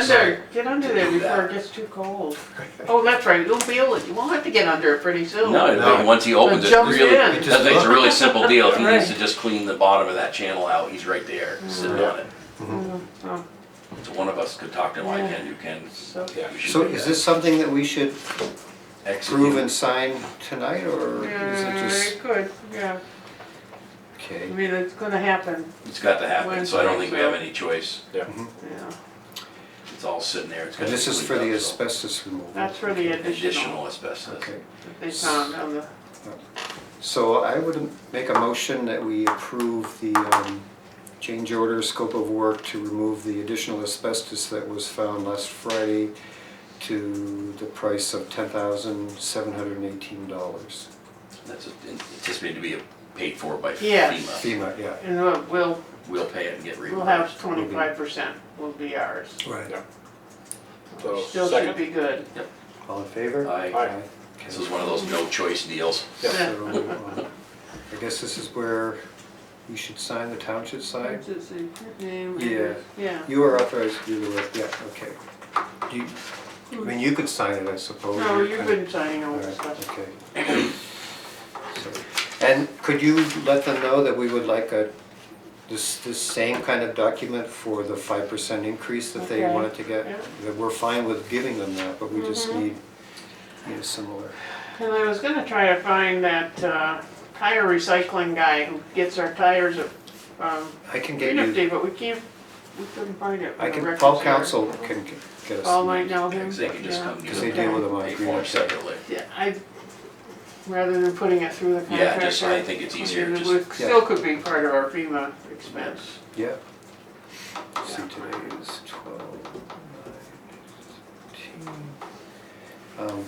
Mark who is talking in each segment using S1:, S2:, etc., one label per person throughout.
S1: there, get under there before it gets too cold. Oh, that's right, you'll be able, you won't have to get under it pretty soon.
S2: No, I mean, once he opens it,
S1: jumps
S2: really,
S1: in.
S2: I think it's a really simple deal. If he needs
S1: Right.
S2: to
S1: Mm-hmm.
S2: just clean the bottom of that channel out, he's right there, sitting on it.
S1: Oh,
S2: So one of us could talk to him, I can, you can.
S1: so-
S2: we should
S3: So
S2: do
S3: is
S2: that.
S3: this something that we should
S2: Execute.
S3: approve and sign tonight, or is it
S1: Yeah,
S3: just,
S1: it could, yeah, I
S3: okay?
S1: mean, it's gonna happen,
S2: It's got to happen, so I don't think we have
S1: Wednesday,
S2: any choice.
S1: yeah,
S2: It's all sitting there. It's got
S3: And
S2: to
S3: this
S2: be
S3: is for the
S2: cleaned up, so-
S3: asbestos removal?
S1: that's for the additional
S2: Additional asbestos.
S3: Okay,
S1: that they found on the,
S3: so I would make a motion that we approve the um, change order scope of work to remove the additional asbestos that was found last Friday to the price of ten thousand seven hundred and eighteen dollars.
S2: That's anticipated to be paid for by
S1: Yes.
S2: FEMA.
S3: FEMA, yeah.
S1: and we'll- we'll,
S2: We'll pay it and get
S1: we'll have
S2: reimbursed.
S1: twenty-five percent will be ours.
S3: Right.
S4: So,
S1: Still should
S4: second?
S1: be good.
S3: All in favor?
S2: I,
S4: Aye.
S3: Okay.
S2: this is one of those no choice deals.
S4: Yeah.
S3: So, um, I guess this is where you should sign, the town should sign.
S1: Yeah. Yeah.
S3: You are authorized to do the work, yeah, okay. Do you, I mean, you could sign it, I suppose.
S1: No,
S3: You're
S1: you've
S3: kind
S1: been signing all
S3: of-
S1: this
S3: all right,
S1: stuff.
S3: Okay. So, And could you let them know that we would like a, this, this same kind of document for the five percent increase that they
S1: Okay,
S3: wanted to get?
S1: yeah. Mm-hmm.
S3: That we're fine with giving them that, but we just need, need a similar.
S1: And I was gonna try to find that uh, tire recycling guy who gets our tires at um,
S3: I can get you.
S1: Green Day, but we can't, we couldn't find it.
S3: I
S1: in the
S3: can,
S1: records
S3: Paul
S1: here.
S3: Council can g- get us.
S1: Paul might know him.
S2: Because they can just
S1: Mm-hmm. yeah.
S2: come. get
S3: 'Cause they
S2: them,
S3: deal with them on
S2: Pay for
S3: Green
S2: them
S3: Day.
S2: separately.
S1: Yeah, I, rather than putting it through the
S2: Yeah,
S1: contractor.
S2: just, I think it's easier,
S1: mean,
S2: just,
S1: it would- Still could be part of our FEMA expense.
S3: Yeah. See, today is twelve, nine, fifteen. Um,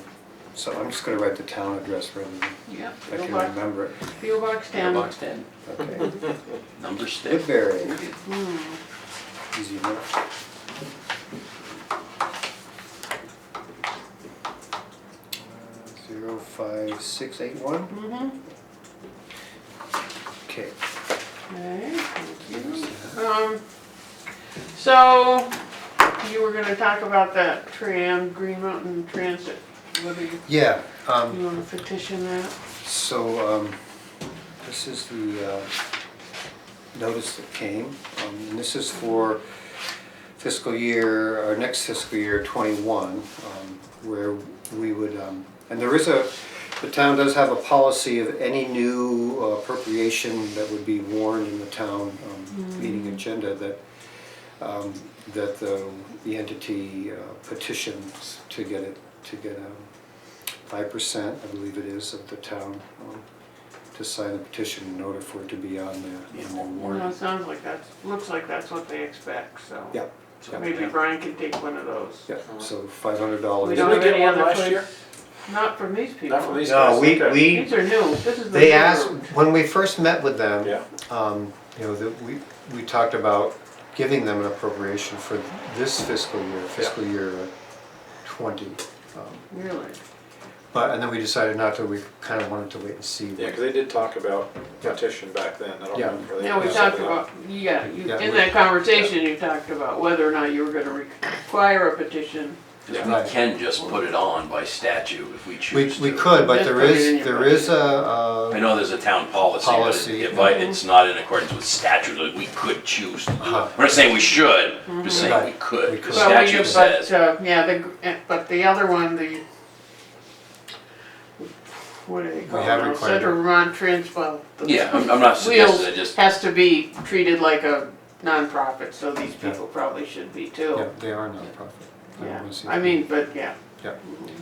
S3: So I'm just gonna write the town address rather than,
S1: Yeah.
S3: I
S1: PO
S3: can
S1: box,
S3: remember it.
S1: PO box ten.
S2: box ten,
S3: Okay,
S2: number six.
S3: Woodbury,
S1: Hmm.
S3: easy enough. Uh, Zero five six eight one,
S1: Mhm.
S3: okay.
S1: Okay, thank you. Um, so, you were gonna talk about that tram, Green Mountain Transit, whether you,
S3: Yeah, um,
S1: you wanna petition that?
S3: So, um, this is the, uh, notice that came, um, and this is for fiscal year, our next fiscal year twenty-one, um, where we would, um, and there is a, the town does have a policy of any new appropriation that would be warned in the town, um, meeting agenda that, um, that the, the entity uh, petitions to get it, to get, um, five percent, I believe it is, of the town, um, to sign a petition in order for it to be on the, on the
S1: You know,
S3: warrant.
S1: it sounds like that's, looks like that's what they expect, so.
S3: Yeah.
S1: Maybe Brian can take one of those.
S3: Yeah, so five hundred
S1: We
S3: dollars.
S4: Did
S1: don't
S4: we
S1: have
S4: get
S1: any
S4: one
S1: other
S4: last
S1: place.
S4: year?
S1: Not from these people.
S4: Not from these guys?
S3: No, we,
S4: okay.
S3: we,
S1: These are new, this is the.
S3: they
S1: new
S3: asked,
S1: route.
S3: when we first met with them,
S4: Yeah,
S3: um, you know, that we, we talked about giving them an appropriation for this fiscal year, fiscal year twenty. um,
S1: Really?
S3: But, and then we decided not to, we kind of wanted to wait and see.
S4: yeah, because they did talk about petition back then, I don't
S3: Yeah.
S4: remember. They
S1: Now, we
S4: had
S1: talked
S4: something
S1: about,
S4: up.
S1: yeah, you,
S3: Yeah,
S1: in
S3: we-
S1: that conversation, you talked about whether or not you were gonna require a petition.
S2: Because
S3: Right.
S2: we can just put it on by statute if we
S3: We,
S2: choose to.
S3: we could, but
S1: Just
S3: there
S1: put it in
S3: is,
S1: your
S3: there
S1: budget.
S3: is a, uh,
S2: I know there's a town policy, but it-
S3: Policy,
S2: if
S3: yeah.
S2: I- it's not in accordance with statute, like, we could choose to do it.
S3: Uh-huh.
S2: We're not saying we should, we're just saying we
S3: Right. We
S2: could, because
S3: could.
S1: Well, we-
S2: statute
S1: but,
S2: says.
S1: uh, Yeah, the, gr- eh, but the other one, the, what do they call it?
S3: have required it.
S1: Central Vermont Trans, well. the
S2: Yeah, I'm I'm not suggesting, I
S1: Wheels
S2: just,
S1: has to be treated like a nonprofit, so these
S3: Yeah.
S1: people probably should be
S3: yeah,
S1: too.
S3: they are nonprofit. don't
S1: Yeah,
S3: wanna see
S1: I
S3: them.
S1: mean, but yeah.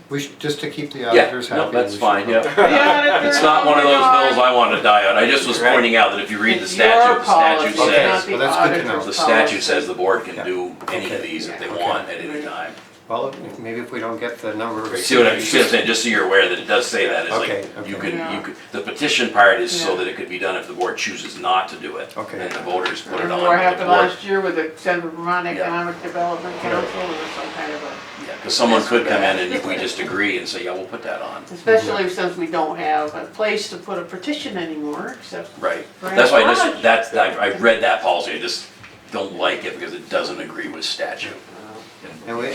S3: We should, just to keep the
S2: yeah,
S3: auditors happy.
S2: no, that's
S3: we should
S2: fine,
S3: help.
S2: yeah. It's not one of those hills I want to die on, I just was
S4: Right.
S2: pointing out that if you read the
S1: It's your
S2: statute, the statute
S1: policy,
S3: Okay,
S1: not
S2: says,
S1: the
S3: well, that's good to
S1: auditor's
S3: know.
S2: the statute
S1: policy.
S2: says the board can
S3: Yeah.
S2: do any of
S3: Okay.
S2: these if they
S3: Okay.
S2: want at any
S1: Right.
S2: time.
S3: Well, if- maybe if we don't get the number of.
S2: See what I'm, see what I'm saying, just so you're aware that it does say that, it's
S3: Okay,
S2: like, you
S3: okay.
S2: can,
S1: Yeah.
S2: you could, the petition part is
S1: Yeah.
S2: so that it could be done if the board chooses not to do it.
S3: Okay.
S2: And the voters put it on,
S1: What
S2: but the
S1: happened
S2: board,
S1: last year with the Central Vermont
S2: Yeah.
S1: Economic Development Council, it was some kind of a.
S2: because someone could come in and if we just agree and say, yeah, we'll put that on.
S1: Especially since we don't have a place to put a petition anymore, except,
S2: Right,
S1: Right.
S2: that's why I
S1: Right.
S2: just, that's, I, I read that policy, I just don't like it because it doesn't agree with statute.
S3: And we,